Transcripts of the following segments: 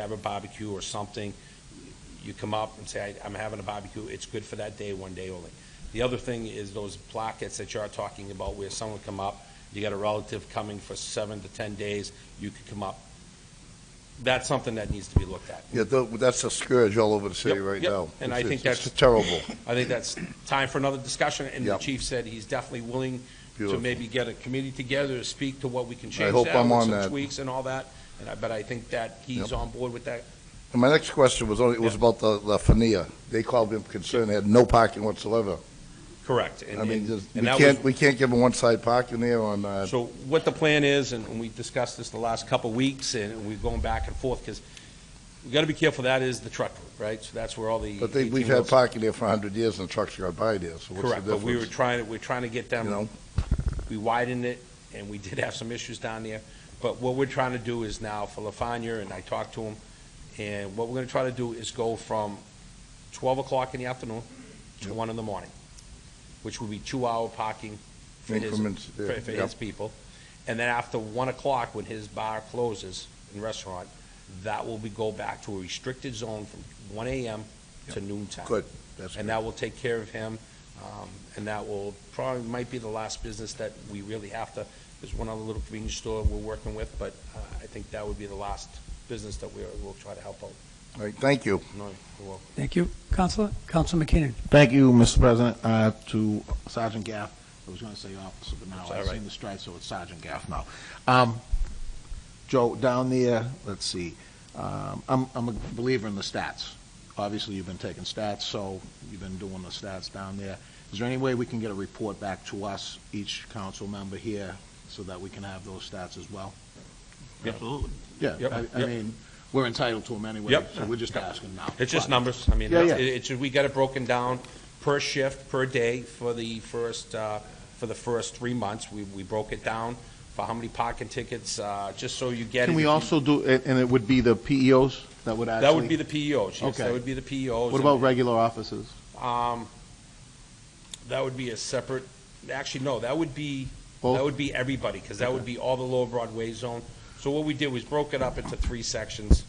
have a barbecue or something, you come up and say, "I- I'm having a barbecue, it's good for that day, one day only. The other thing is those plackets that you're talking about where someone come up, you got a relative coming for seven to 10 days, you could come up. That's something that needs to be looked at. Yeah, tho- that's a scourge all over the city Yep, right yep. now. And I It's- think it's- that's- It's terrible. I think that's time for another discussion, and the Yep. chief said he's definitely willing to Beautiful. maybe get a committee together to speak to what we can change hope that, I'm with on some that. tweaks and all that, and I, but I think that he's Yep. on board with that. And my next question was only, it was Yeah. about the, the Fania. They called them concerned, they had no parking whatsoever. Correct. and- I mean, and- just, we and that was can't, we can't give them one-side parking there on, uh, So what the plan is, and we discussed this the last couple of weeks, and we've gone back and forth, because we got to be careful, that is the truck route, right? So that's where all the. but they, we've 18 had wheels- parking there for a hundred years and trucks got by there, so what's the Correct, but we were difference? trying, to we're trying to get You them, know? we widened it, and we did have some issues down there. But what we're trying to do is now for Lafanya, and I talked to him, and what we're going to try to do is go from 12 o'clock in the afternoon to 1 in the morning, which will be two-hour parking for his, Increments, for yeah, for yep. his people. And then after 1 o'clock, when his bar closes and restaurant, that will be, go back to a restricted zone from 1 AM to noon time. Good, that's And good. that will take care of him, um, and that will probably, might be the last business that we really have to, there's one other little convenience store we're working with, but uh, I think that would be the last business that we are- we'll try to help out. All right, thank you. No, well, Thank you. Counselor, Counselor McKinnon. Thank you, Mr. President. Uh, To Sergeant Gaff, I was going to say officer, That's but now all I've right. seen the stripe, so it's Sergeant Gaff now. Um, Joe, down there, let's see, um, I'm I'm a believer in the stats. Obviously, you've been taking stats, so you've been doing the stats down there. Is there any way we can get a report back to us, each council member here, so that we can have those stats as well? Yeah. Absolutely. Yeah, Yep, I- I yep. mean, we're entitled to them anyway, Yep. so we're just asking now. It's just But- numbers, I mean, Yeah, it- yeah. it's, we got it broken down per shift, per day for the first, uh, for the first three months. We, we broke it down for how many parking tickets, uh, just so you get. Can it. we also do, and and it would be the PEOs that would actually? That would be the PEOs, yes, that Okay. would be the E PEOs. What about regular offices? Um, that would be a separate, actually, no, that would be, Both? that would be everybody, because that would be all the Lower Broadway zone. So what we did was broke it up into three sections.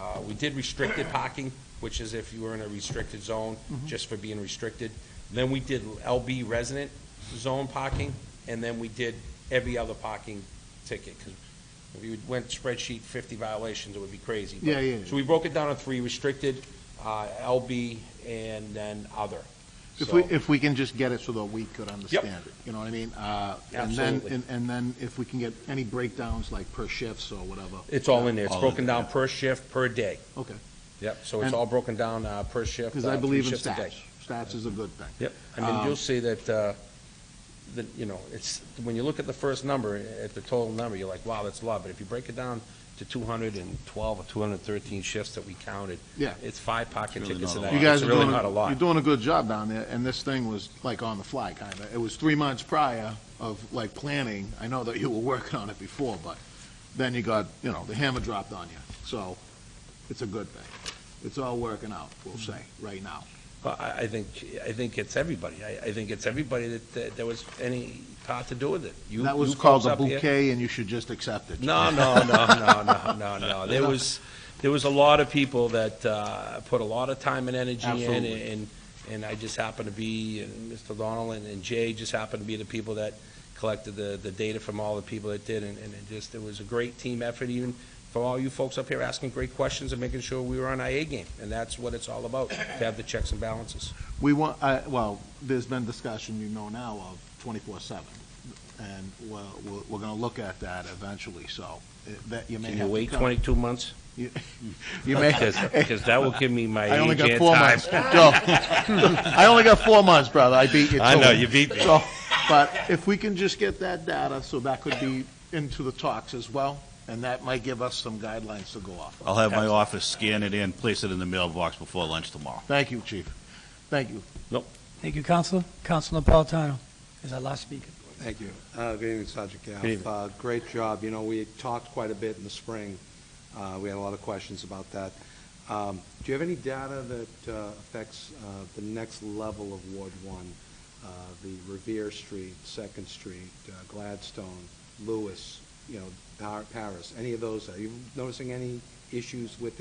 Uh, we did restricted parking, which is if you were in a restricted zone, Mm-hmm. just for being restricted. Then we did LB resident zone parking, and then we did every other parking ticket, 'cause if you went spreadsheet fifty violations, it would be crazy. but- Yeah, yeah, yeah. So we broke it down to three, restricted, uh, LB, and then other. If we, So- if we can just get it so that we could understand it, you know what I mean? Uh, And then, Absolutely. and- and then if we can get any breakdowns, like per shifts or whatever. It's all in there. It's All broken there. down per shift, per day. Okay, Yep. So it's And- all broken down uh, per shift. because uh, I three believe in shifts a day. stats. Stats is a good thing. Yep. I mean, Um, you'll see that, uh, that, you know, it's, when you look at the first number, at the total number, you're like, wow, that's a lot. But if you break it down to 212 or 213 shifts that we counted, Yeah. it's five pocket tickets a night. You guys It's are really doing, not a lot. you're doing a good job down there, and this thing was like on the fly, kind of. It was three months prior of like planning. I know that you were working on it before, but then you got, you know, the hammer dropped on you. So it's a good thing. It's all working out, we'll say, right now. Well, I, I think, I think it's everybody. I, I think it's everybody that, that there was any part to do with it. You- That you was called folks a up here- bouquet, and you should just accept it. No, no, no, no, no, no, no. There was, there was a lot of people that uh, put a lot of time and energy in, Absolutely. and, and I just happened to be, and Mr. Donald and- and Jay just happened to be the people that collected the, the data from all the people that did, and, and it just, it was a great team effort, even from all you folks up here asking great questions and making sure we were on our A game, and that's what it's all about, to have the checks and balances. We want, I- well, there's been discussion, you know now, of 24/7, and we're, we're- we're going to look at that eventually, so uh, that you may Can have you to wait come- 22 months? You you may, Because that will give me my I only age got and four time. months. Joe, I only got four months, brother. I beat you. I to know, it. you beat me. So, but if we can just get that data, so that could be into the talks as well, and that might give us some guidelines to go off. of. I'll have my office scan it in, place it in the mailbox before lunch tomorrow. Thank you, chief. Thank you. Thank you, Counselor. Counselor Napolitano is our last speaker. Thank you. Uh, Good evening, Sergeant Gaff. Good evening. Uh, Great job. You know, we had talked quite a bit in the spring. Uh, We had a lot of questions about that. Um, Do you have any data that uh, affects uh, the next level of Ward One? Uh, The Revere Street, Second Street, uh, Gladstone, Lewis, you know, Par- Paris, any of those? Are you noticing any issues with